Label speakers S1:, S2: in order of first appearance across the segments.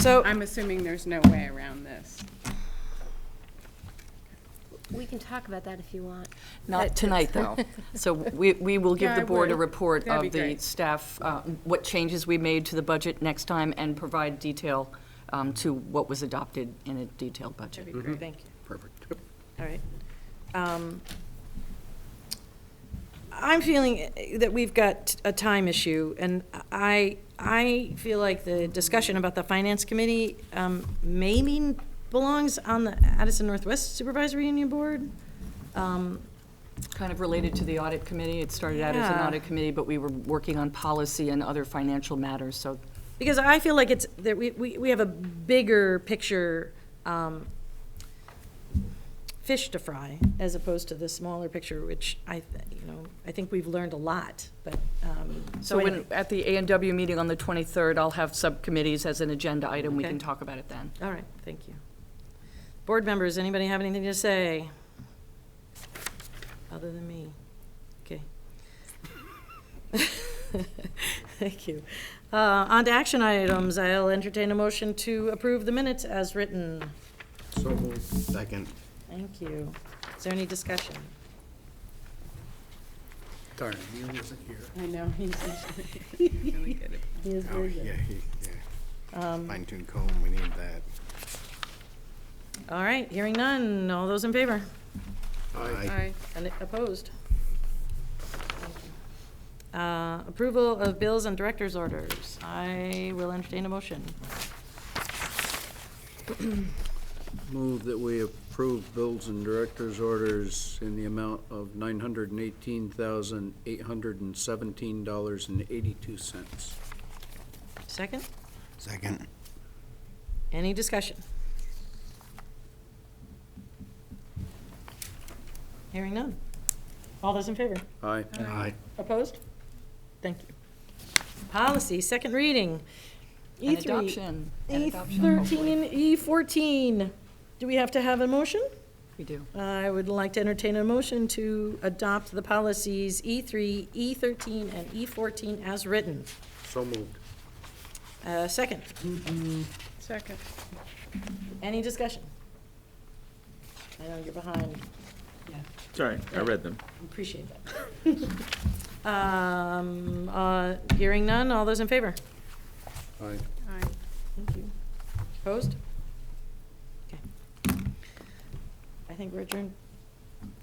S1: So,
S2: I'm assuming there's no way around this.
S3: We can talk about that if you want.
S1: not tonight, though. So we, we will give
S2: Yeah,
S1: the
S2: I
S1: board a
S2: would.
S1: report
S2: That'd be
S1: of the
S2: great.
S1: staff, uh, what changes we made to the budget next time, and provide detail um, to what was adopted in a detailed budget.
S2: That'd be great.
S4: Thank you.
S5: Perfect.
S4: All right. Um, I'm feeling that we've got a time issue, and I, I feel like the discussion about the Finance Committee um, maybe belongs on the Addison Northwest Supervisory Union Board. Um,
S1: Kind of related to the audit committee. It started out as an
S4: Yeah.
S1: audit committee, but we were working on policy and other financial matters, so
S4: Because I feel like it's, that we, we, we have a bigger picture, um, fish to fry, as opposed to the smaller picture, which I, th- you know, I think we've learned a lot, but, um,
S1: So
S4: so
S1: when,
S4: anyway.
S1: at the A and W meeting on the 23rd, I'll have subcommittees as an agenda item. We
S4: Okay.
S1: can talk about it then.
S4: All right, thank you. Board members, anybody have anything to say? Other than me? Okay. Thank you. Uh, on to action items. I'll entertain a motion to approve the minutes as written.
S5: So moved. Second.
S4: Thank you. Is there any discussion?
S5: Darn, Neil wasn't here.
S2: I know, he's he's really good at
S4: He is
S5: Oh,
S4: very good.
S5: yeah, he, yeah. Fine tune comb, we need that.
S4: All right, hearing none. All those in favor?
S5: Aye.
S2: Aye.
S4: And opposed? Uh, Approval of bills and director's orders. I will entertain a motion.
S6: Move that we approve bills and directors' orders in the amount of nine hundred and eighteen thousand, eight hundred and seventeen dollars and eighty-two cents.
S4: Second?
S5: Second.
S4: Any discussion? Hearing none. All those in favor?
S6: Aye.
S5: Aye.
S4: Opposed? Thank you. Policy, second reading. E
S1: And
S4: E3,
S1: adoption,
S4: E
S1: and adoption, hopefully.
S4: E13, E14. E Do we have to have a motion?
S1: We do.
S4: I would like to entertain a motion to adopt the policies E E3, E13, and E14 as written.
S6: So moved.
S4: Uh, Second,
S2: Second.
S4: any discussion? I know you're behind,
S7: Sorry, I read them.
S4: appreciate that. Um, uh, Hearing none, all those in favor?
S6: Aye.
S2: Aye.
S4: Thank you. Opposed? Okay. I think we're adjourned,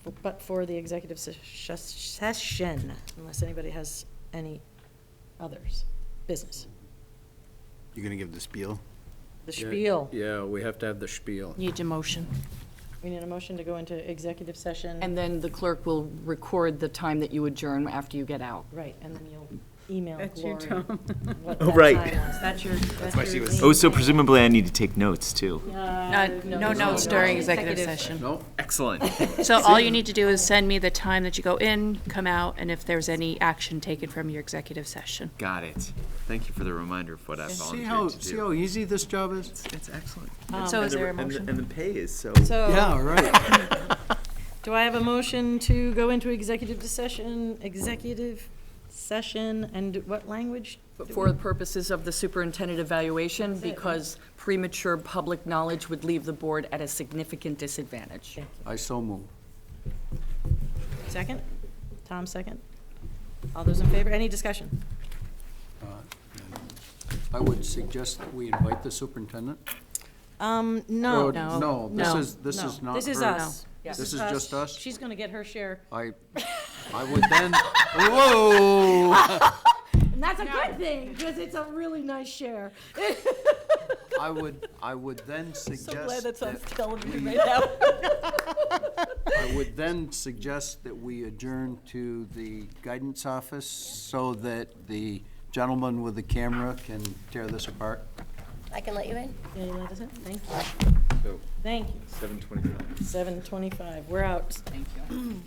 S4: f- but for the executive se- sh- session, unless anybody has any others, business,
S5: You gonna give the spiel?
S4: the
S6: Yeah,
S4: spiel.
S6: Yeah, we have to have the spiel.
S1: Need a motion.
S4: We need a motion to go into executive session.
S1: And then the clerk will record the time that you adjourn after you get out.
S4: Right, and then you'll email
S2: That's you,
S4: Gloria
S2: Tom.
S4: what
S7: Oh,
S4: that
S7: right.
S4: time was. That's your, that's
S5: why she
S4: your
S5: was-
S7: Oh,
S4: lead.
S7: so presumably I need to take notes too.
S4: Uh,
S8: No notes during executive session.
S6: No?
S7: Excellent.
S8: So all you need to do is send me the time that you go in, come out, and if there's any action taken from your executive session.
S7: Got it. Thank you for the reminder of what I
S6: See
S7: volunteered
S6: how,
S7: to do.
S6: see how easy this job is?
S7: It's excellent.
S8: Um, So is
S7: And the-
S8: there a
S7: and the-
S8: motion?
S7: And the pay is so.
S4: So,
S6: Yeah, right.
S4: do I have a motion to go into executive session, executive session, and what language?
S1: For the purposes of the superintendent evaluation,
S4: it, right?
S1: because premature public knowledge would leave the board at a significant disadvantage.
S6: I so move.
S4: Second? Tom, second? All those in favor? Any discussion?
S6: Uh, I would suggest that we invite the superintendent.
S4: Um,
S6: Or-
S4: no.
S6: No, this
S8: no,
S6: is, this is
S4: No.
S6: not
S4: This is
S6: her.
S4: us.
S6: This is just us?
S4: She's gonna get her share.
S6: I, I would then, whoa!
S4: And that's a good thing, because it's a really nice share.
S6: I would, I would then suggest.
S4: So glad that's on
S6: that-
S4: television right now.
S6: I would then suggest that we adjourn to the guidance office so that the gentleman with the camera can tear this apart.
S3: I can let you in?
S4: Yeah, you let us in? Thank you. Thank you.
S7: Seven twenty-five.
S4: Seven twenty-five. We're out.
S1: Thank you.